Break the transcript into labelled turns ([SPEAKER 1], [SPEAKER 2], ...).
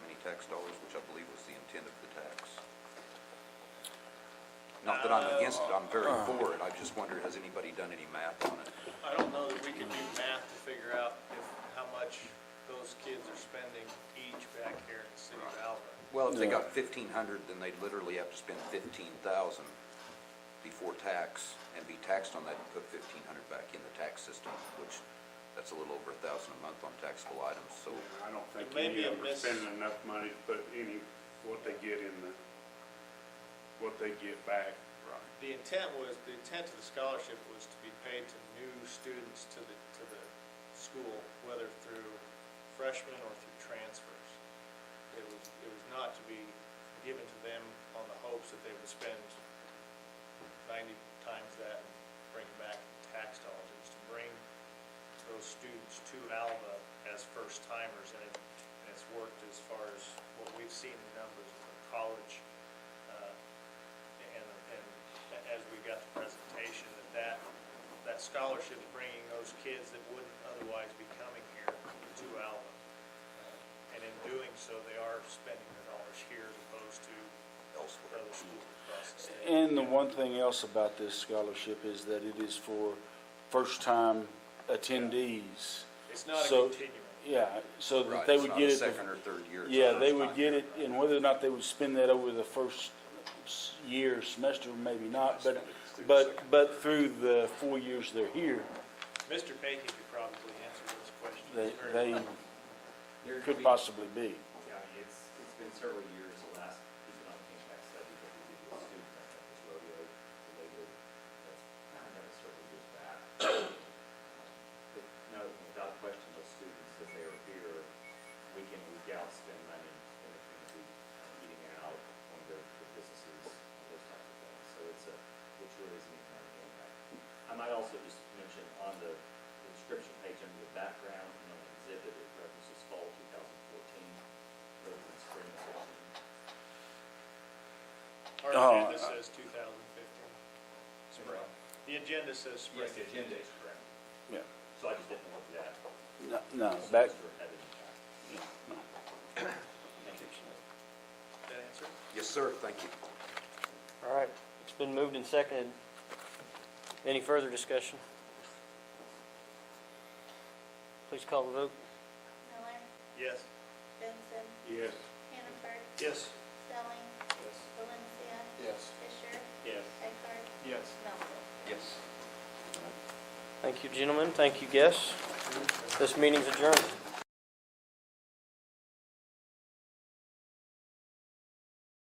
[SPEAKER 1] tax dollars, which I believe was the intent of the tax. Not that I'm against it, I'm very
[SPEAKER 2] Uh.
[SPEAKER 1] for it, I just wonder, has anybody done any math on it?
[SPEAKER 3] I don't know that we can do math to figure out if, how much those kids are spending each back here in the city of Alva.
[SPEAKER 1] Well, if they
[SPEAKER 2] Yeah.
[SPEAKER 1] got fifteen hundred, then they'd literally have to spend fifteen thousand before tax and be taxed on that and put fifteen hundred back in the tax system, which, that's a little over a thousand a month on taxable items, so,
[SPEAKER 4] I don't think
[SPEAKER 3] It may
[SPEAKER 4] any
[SPEAKER 3] be
[SPEAKER 4] of
[SPEAKER 3] a
[SPEAKER 4] them are
[SPEAKER 3] miss-
[SPEAKER 4] spending enough money to put any, what they get in the, what they get back. Right.
[SPEAKER 3] The intent was, the intent of the scholarship was to be paid to new students to the, to the school, whether through freshmen or through transfers. It was, it was not to be given to them on the hopes that they would spend ninety times that and bring back tax dollars. It was to bring those students to Alva as first timers, and it, and it's worked as far as what we've seen in numbers of the college, uh, and, and as we got the presentation, that that, that scholarship is bringing those kids that wouldn't otherwise be coming here to Alva. And in doing so, they are spending their dollars here as opposed to
[SPEAKER 1] elsewhere.
[SPEAKER 3] other schools across the state.
[SPEAKER 2] And the one thing else about this scholarship is that it is for first-time attendees.
[SPEAKER 3] It's not a
[SPEAKER 2] So-
[SPEAKER 3] continuum.
[SPEAKER 2] Yeah, so that
[SPEAKER 1] Right,
[SPEAKER 2] they
[SPEAKER 1] it's
[SPEAKER 2] would
[SPEAKER 1] not
[SPEAKER 2] get
[SPEAKER 1] a
[SPEAKER 2] it.
[SPEAKER 1] second or third year. it's
[SPEAKER 2] Yeah,
[SPEAKER 1] the
[SPEAKER 2] they
[SPEAKER 1] first
[SPEAKER 2] would
[SPEAKER 1] time.
[SPEAKER 2] get it, and whether or not they would spend that over the first s- year, semester, maybe not,
[SPEAKER 1] Spend
[SPEAKER 2] but,
[SPEAKER 1] it through the
[SPEAKER 2] but,
[SPEAKER 1] second.
[SPEAKER 2] but through the four years they're here,
[SPEAKER 3] Mr. Payton could probably answer those questions.
[SPEAKER 2] they,
[SPEAKER 3] very
[SPEAKER 2] they
[SPEAKER 3] well.
[SPEAKER 5] There's
[SPEAKER 2] could
[SPEAKER 5] been-
[SPEAKER 2] possibly be.
[SPEAKER 5] Yeah, it's, it's been several years, the last economic impact study that we did with students, I think was rodeo related, that's kind of done several years back. But No, without question, those students, if they are here, week in, week out, spend money in the community, eating out, on their their businesses, those types of things. So it's a, it truly is an economic impact. I might also just mention on the inscription page under the background, you know, exhibit, it references fall 2014, rather than spring
[SPEAKER 3] Our
[SPEAKER 5] 14.
[SPEAKER 2] Oh,
[SPEAKER 3] agenda
[SPEAKER 2] uh,
[SPEAKER 3] says 2015. Spring. The agenda says spring.
[SPEAKER 5] Yes, the agenda is correct.
[SPEAKER 2] Yeah,
[SPEAKER 5] So I just didn't want that.
[SPEAKER 2] no, no, back,
[SPEAKER 5] semester had an impact. Thank you.
[SPEAKER 3] That answer?
[SPEAKER 1] Yes, sir, thank you.
[SPEAKER 6] All right, it's been moved and seconded. Any further discussion? Please call the vote.
[SPEAKER 7] Miller,
[SPEAKER 3] Yes.
[SPEAKER 7] Benson,
[SPEAKER 4] Yes.
[SPEAKER 7] Hannaford,
[SPEAKER 3] Yes.
[SPEAKER 7] Stelling, Valencia.
[SPEAKER 3] Yes.
[SPEAKER 7] Fisher,
[SPEAKER 3] Yes.
[SPEAKER 7] Eckhart,
[SPEAKER 3] Yes.
[SPEAKER 7] Melville.
[SPEAKER 1] Yes.
[SPEAKER 6] Thank you, gentlemen, thank you, guests. This meeting's adjourned.